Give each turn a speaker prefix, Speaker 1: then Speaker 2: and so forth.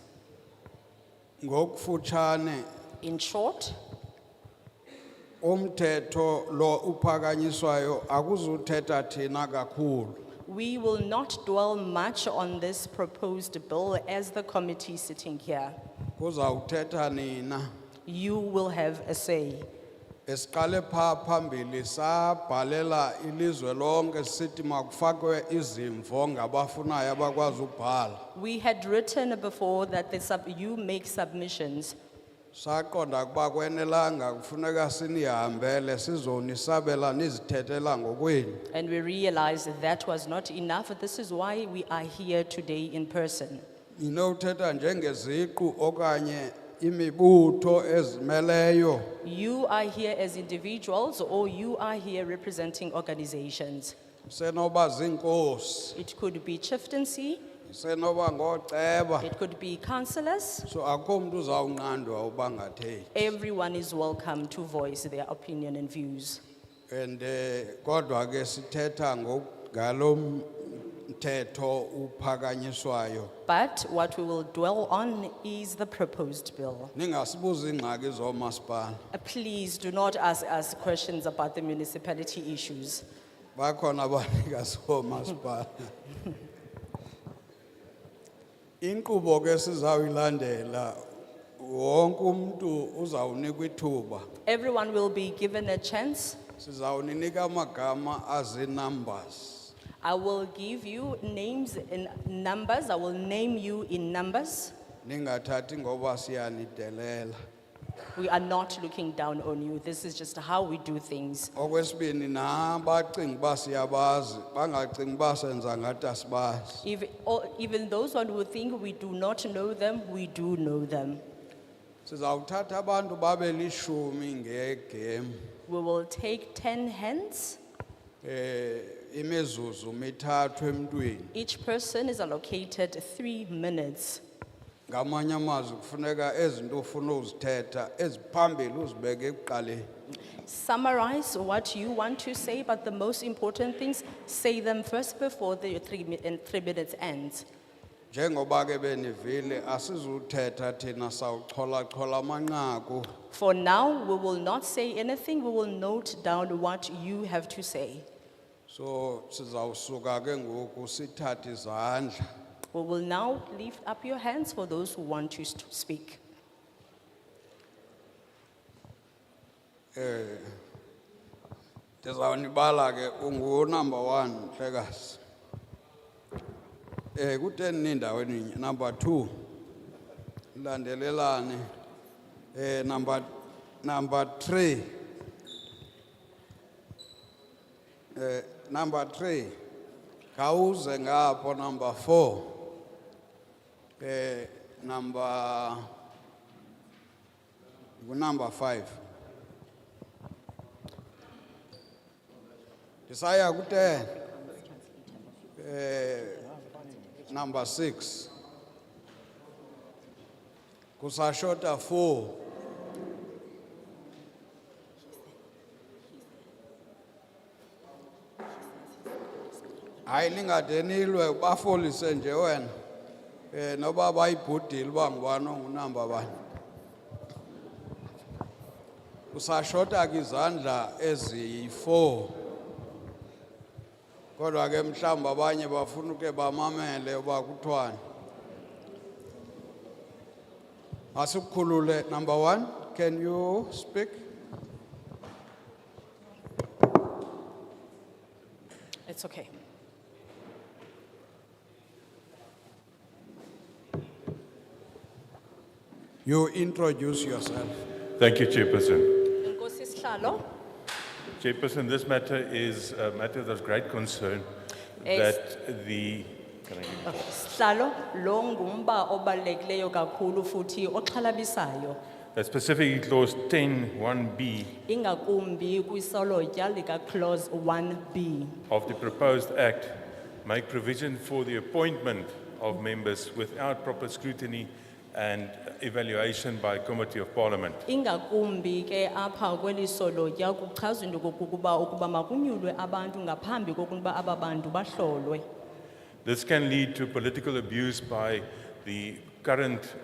Speaker 1: ngokufutshane
Speaker 2: In short,
Speaker 1: umthetho lo uphakanyiswayo akuzuthetha thina kakhulu
Speaker 2: we will not dwell much on this proposed bill as the committee sitting here.
Speaker 1: kuzawuthetha nina
Speaker 2: You will have a say.
Speaker 1: esiqale pha phambili sabhalela ilizwe lonke sithi makufakwe izimvo ngabafunayo abakwazi ubhala
Speaker 2: We had written before that the sub, you make submissions.
Speaker 1: saqonda ukuba kwenelanga kufuneka sinihambele sizonisabela nizithethela ngokwenu
Speaker 2: And we realized that that was not enough. This is why we are here today in person.
Speaker 1: ninothetha njengeziqu okanye imibutho ezimeleyo
Speaker 2: You are here as individuals or you are here representing organizations.
Speaker 1: senoba ziinkosi
Speaker 2: It could be chieftaincy,
Speaker 1: senoba ngooceba
Speaker 2: it could be councillors.
Speaker 1: so akho mntu uzawunqandwa uba ngathethi
Speaker 2: Everyone is welcome to voice their opinion and views.
Speaker 1: and eh, kodwa ke sithetha ngalo mthetho uphakanyiswayo
Speaker 2: But what we will dwell on is the proposed bill.
Speaker 1: ningasibuza iingxaki zoomasipala
Speaker 2: Uh, Please do not ask us questions about the municipality issues.
Speaker 1: bakhona abanikazi oomasipala inkqubo ke sizawuyilandela wonke umntu uzawunikwa ithuba
Speaker 2: Everyone will be given a chance.
Speaker 1: sizawuninika amagama azinumbers
Speaker 2: I will give you names in numbers. I will name you in numbers.
Speaker 1: ningathathi ngoba siyanidelela
Speaker 2: We are not looking down on you. This is just how we do things.
Speaker 1: okwesibini nabacinga uba siyabazi bangacinga uba senza ngathi asibazi
Speaker 2: If, or even those one who think we do not know them, we do know them.
Speaker 1: sizawuthatha abantu babe lishumi ngegemu
Speaker 2: We will take 10 hands.
Speaker 1: um imizuzu mithathu emntwini
Speaker 2: Each person is allocated three minutes.
Speaker 1: ngamanye amazwi kufuneka ezinto ufuna uzithetha eziphambili uzibeke ekuqaleni
Speaker 2: Summarize what you want to say, but the most important things, say them first before the three, mi- and three minutes ends.
Speaker 1: njengoba ke benivile asizuthetha thina sawucholachola amanqaku
Speaker 2: For now, we will not say anything. We will note down what you have to say.
Speaker 1: so sizawusuka ke ngoku sithathe izandla
Speaker 2: We will now lift up your hands for those who want to st- speak.
Speaker 1: ndizawunibala ke ungunumber one ntlekazi um kuteni nindaweni nye number two ilandelelane um number number three um number three khawuze ngapho number four um number ngunumber five Desire good ten. Eh, number six. Kusashota four. Hayi lingadenilwe bafolise nje wena. Eh noba bayibhudile uba ngubani ongunamba bani. Kusashota ke izandla eziyi-4. kodwa ke mhlawumbi abanye bafuna uke bamamele uba kuthiwani asikukhulule number one can you speak
Speaker 2: It's okay.
Speaker 1: you introduce yourself
Speaker 3: Thank you, Chairperson.
Speaker 2: Nkosi Sihlalo,
Speaker 3: Chairperson, this matter is a matter of great concern
Speaker 2: Yes.
Speaker 3: that the, can I give you-
Speaker 2: Sihlalo, lo ngumba obalulekileyo kakhulu futhi oxhalabisayo.
Speaker 3: that specifically clause 10 1B
Speaker 2: Ingakumbi kwisolotya lika clause 1B.
Speaker 3: of the proposed act make provision for the appointment of members without proper scrutiny and evaluation by committee of parliament.
Speaker 2: Ingakumbi ke apha kweli solotya kuchazwa into kokuba ukuba makunyulwe abantu ngaphambi kokuba aba bantu bahlolwe.
Speaker 3: This can lead to political abuse by the current